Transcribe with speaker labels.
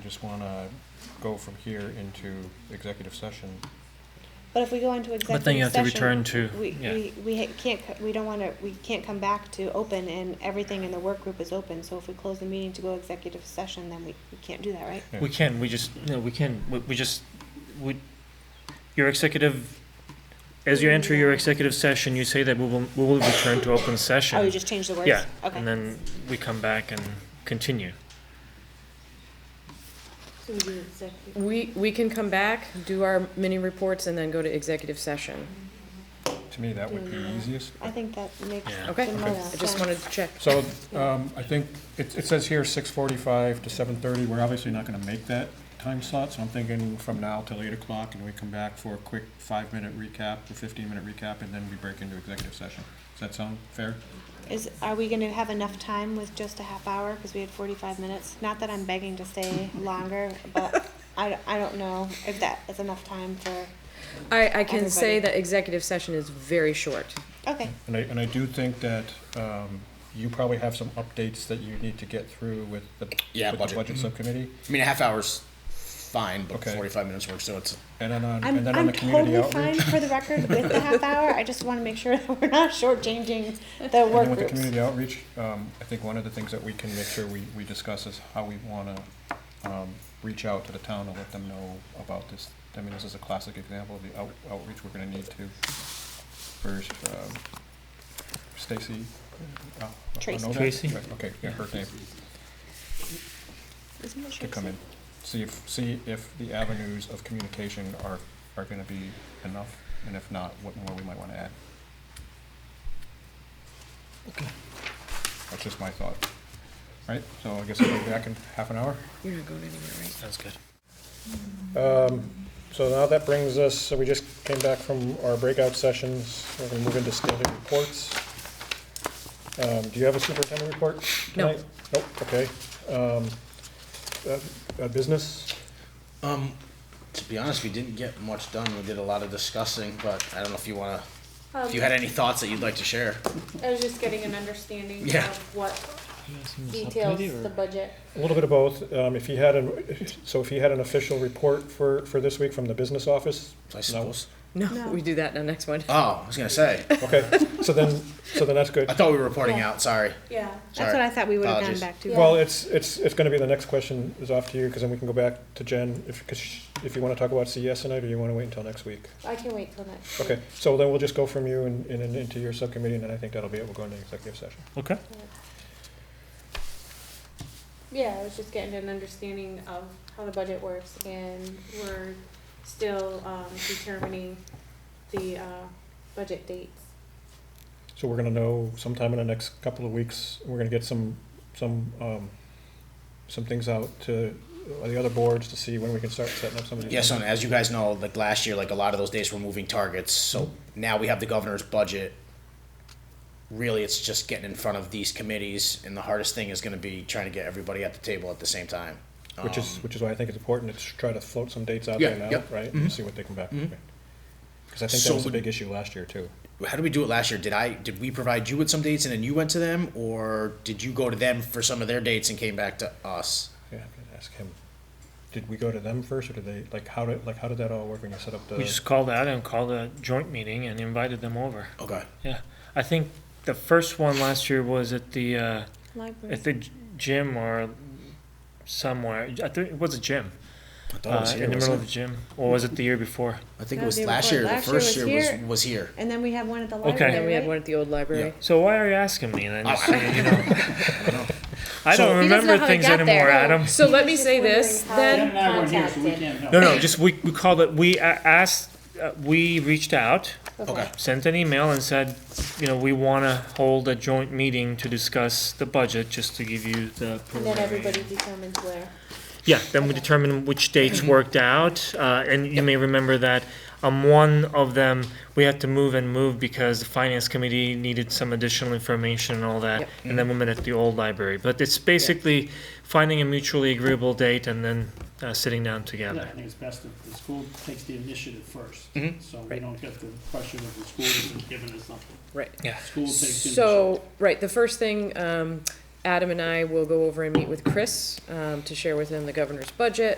Speaker 1: just want to go from here into executive session.
Speaker 2: But if we go into
Speaker 3: But then
Speaker 2: executive
Speaker 3: you have to
Speaker 2: session,
Speaker 3: return to,
Speaker 2: we,
Speaker 3: yeah,
Speaker 2: we, we ha- can't, co- we don't wanna, we can't come back to open and everything in the work group is open, so if we close the meeting to go executive session, then we, we can't do that, right?
Speaker 1: Yeah.
Speaker 3: we can, we just, no, we can, we, we just, we, your executive, as you enter your executive session, you say that we will, we will return to open session.
Speaker 2: Oh, you just changed the words?
Speaker 3: Yeah,
Speaker 2: Okay.
Speaker 3: and then we come back and continue.
Speaker 4: We, we can come back, do our mini reports, and then go to executive session.
Speaker 1: To me, that would be
Speaker 2: Mm.
Speaker 1: easiest.
Speaker 2: I think that makes
Speaker 3: Yeah.
Speaker 4: Okay.
Speaker 2: the
Speaker 1: Okay.
Speaker 2: most
Speaker 4: I
Speaker 2: sense.
Speaker 4: just wanted to check.
Speaker 1: So um, I think it it says here 6:45 to 7:30. We're obviously not going to make that time slot, so I'm thinking from now till 8 o'clock, and we come back for a quick five-minute recap, or 15-minute recap, and then we break into executive session. Does that sound fair?
Speaker 2: Is, are we gonna have enough time with just a half hour, cause we had forty-five minutes? Not that I'm begging to stay longer, but I, I don't know if that is enough time for,
Speaker 4: I, I can
Speaker 2: Everybody.
Speaker 4: say that executive session is very short.
Speaker 2: okay,
Speaker 1: And I, and I do think that um, you probably have some updates that you need to get through with the
Speaker 5: Yeah,
Speaker 1: with the
Speaker 5: budget.
Speaker 1: budget subcommittee.
Speaker 5: I mean, a half hour's fine, but
Speaker 1: Okay.
Speaker 5: 45 minutes works, so it's.
Speaker 1: And then on,
Speaker 2: I'm,
Speaker 1: and then on
Speaker 2: I'm
Speaker 1: the community
Speaker 2: totally fine
Speaker 1: outreach.
Speaker 2: for the record with the half hour, I just wanna make sure that we're not shortchanging the
Speaker 1: And then
Speaker 2: work
Speaker 1: with the
Speaker 2: groups.
Speaker 1: community outreach, um, I think one of the things that we can make sure we, we discuss is how we wanna, um, reach out to the town and let them know about this. I mean, this is a classic example of the out- outreach we're gonna need to, first, um, Stacy. uh, uh,
Speaker 2: Tracy.
Speaker 1: Onoda?
Speaker 3: Tracy.
Speaker 1: Right, Okay, yeah, her name,
Speaker 2: Isn't it
Speaker 1: to
Speaker 2: short?
Speaker 1: come in, see if, see if the avenues of communication are, are gonna be enough, and if not, what more we might wanna add. That's just my thought. Right, so I guess I'll be back in half an hour.
Speaker 4: You're not going anywhere, right?
Speaker 3: Sounds good.
Speaker 1: Um, So now that brings us, so we just came back from our breakout sessions, we're gonna move into standing reports. Um, do you have a superintendent report
Speaker 4: No.
Speaker 1: tonight? Nope, okay. Um, uh, uh, business?
Speaker 5: Um, to be honest, we didn't get much done. We did a lot of discussing, but I don't know if you want to. if you had any thoughts that you'd like to share,
Speaker 6: I was just getting an understanding
Speaker 5: Yeah.
Speaker 6: of what details the budget.
Speaker 1: A little bit of both. Um, if he had an, so if he had an official report for, for this week from the business office?
Speaker 5: I suppose.
Speaker 4: No, we do that in the next one.
Speaker 5: Oh, I was going to say.
Speaker 1: No? Okay, so then, so then that's good.
Speaker 5: I thought we were reporting out. Sorry.
Speaker 6: Yeah.
Speaker 2: That's
Speaker 5: Sorry.
Speaker 2: what I thought we would have gone
Speaker 5: Apologies.
Speaker 2: back to.
Speaker 6: Yeah.
Speaker 1: Well, it's, it's, it's gonna be, the next question is off to you, because then we can go back to Jen, if, because if you wanna talk about CES tonight, or you wanna wait until next week?
Speaker 6: I can wait till next.
Speaker 1: Okay, so then we'll just go from you and, and then into your subcommittee, and then I think that'll be it, we'll go into executive session.
Speaker 3: Okay.
Speaker 6: Yeah, I was just getting an understanding of how the budget works and we're still, um, determining the, uh, budget dates.
Speaker 1: So we're gonna know sometime in the next couple of weeks, we're gonna get some, some, um, some things out to uh, the other boards to see when we can start setting up some of these.
Speaker 5: Yes,
Speaker 1: things.
Speaker 5: and as you guys know, like last year, like a lot of those days were moving targets. So now we have the governor's budget. Really, it's just getting in front of these committees, and the hardest thing is going to be trying to get everybody at the table at the same time.
Speaker 1: Which is,
Speaker 5: Um,
Speaker 1: which is why I think it's important to try to float some dates out
Speaker 5: Yeah,
Speaker 1: there now,
Speaker 5: yep, Mm-hmm.
Speaker 1: right, and see what they come back with. Because I think that
Speaker 5: So
Speaker 1: was a
Speaker 5: would-
Speaker 1: big issue last year, too.
Speaker 5: how did we do it last year? Did I did we provide you with some dates and then you went to them, or did you go to them for some of their dates and came back to us?
Speaker 1: Yeah, I'm gonna ask him, did we go to them first, or did they, like, how did, like, how did that all work when you set up the?
Speaker 3: We just called out and called a joint meeting and invited them over.
Speaker 5: Okay.
Speaker 3: Yeah, I think the first one last year was at the, uh,
Speaker 2: Library.
Speaker 3: at the g- gym or somewhere. I think it was a gym.
Speaker 5: I thought it
Speaker 3: Uh,
Speaker 5: was here,
Speaker 3: in the middle
Speaker 5: wasn't
Speaker 3: of the gym, or was it the year before?
Speaker 5: it? I think
Speaker 2: No,
Speaker 5: it was
Speaker 2: the
Speaker 5: last
Speaker 2: year
Speaker 5: year. The
Speaker 2: before.
Speaker 5: first
Speaker 2: Last year
Speaker 5: year
Speaker 2: was
Speaker 5: was
Speaker 2: here.
Speaker 5: was here.
Speaker 2: And then we have one at the
Speaker 3: Okay.
Speaker 2: library,
Speaker 4: And then we had
Speaker 2: right?
Speaker 4: one at the old library.
Speaker 3: So why are you asking me? Then just, so you know, I
Speaker 5: So-
Speaker 3: don't
Speaker 6: Oh, He doesn't know
Speaker 3: remember
Speaker 6: how he
Speaker 3: things
Speaker 6: got
Speaker 3: anymore,
Speaker 6: there.
Speaker 3: Adam.
Speaker 4: So let me
Speaker 6: Just
Speaker 4: say this,
Speaker 6: wondering how
Speaker 4: then,
Speaker 6: they contacted.
Speaker 3: No, no, just we we called it. We a- asked. Uh, we reached out,
Speaker 5: Okay.
Speaker 3: sent an email, and said, you know, we want to hold a joint meeting to discuss the budget, just to give you the.
Speaker 6: And then
Speaker 3: preliminary-
Speaker 6: everybody determines where.
Speaker 3: Yeah, then we determine which dates worked out, uh, and you may remember that on one of them, we had to move and move because the finance committee needed some additional information and all that,
Speaker 4: Yep.
Speaker 3: and then we met at the old library, but it's basically finding a mutually agreeable date and then, uh, sitting down
Speaker 7: Yeah, I
Speaker 3: together.
Speaker 7: think it's best if the school takes the initiative first,
Speaker 5: Mhm.
Speaker 7: so we
Speaker 4: Right.
Speaker 7: don't get the pressure that the school isn't giving us something.
Speaker 4: right.
Speaker 7: School takes the initiative.
Speaker 4: So, right, the first thing, um, Adam and I will go over and meet with Chris um, to share with him the governor's budget